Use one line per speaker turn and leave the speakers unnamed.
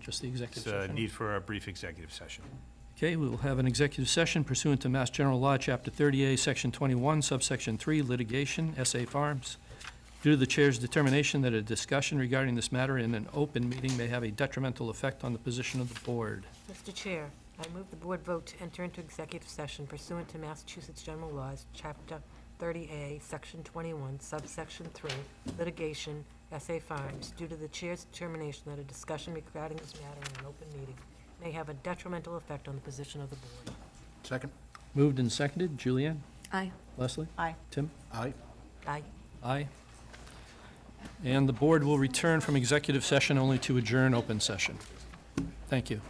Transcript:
just the executive
It's a
session.
need for a brief executive session.
Okay, we will have an executive session pursuant to Mass General Law, Chapter 30A, Section 21, Subsection 3, Litigation, SA Farms. Due to the chair's determination that a discussion regarding this matter in an open meeting may have a detrimental effect on the position of the board.
Mr. Chair, I move the board vote to enter into executive session pursuant to Massachusetts General Laws, Chapter 30A, Section 21, Subsection 3, litigation, SA Farms, due to the chair's determination that a discussion regarding this matter in an open meeting may have a detrimental effect on the position of the board.
Second?
Moved and seconded, Julianne?
Aye.
Leslie?
Aye.
Tim?
Aye.
Aye.
Aye. And the board will return from executive session only to adjourn open session. Thank you.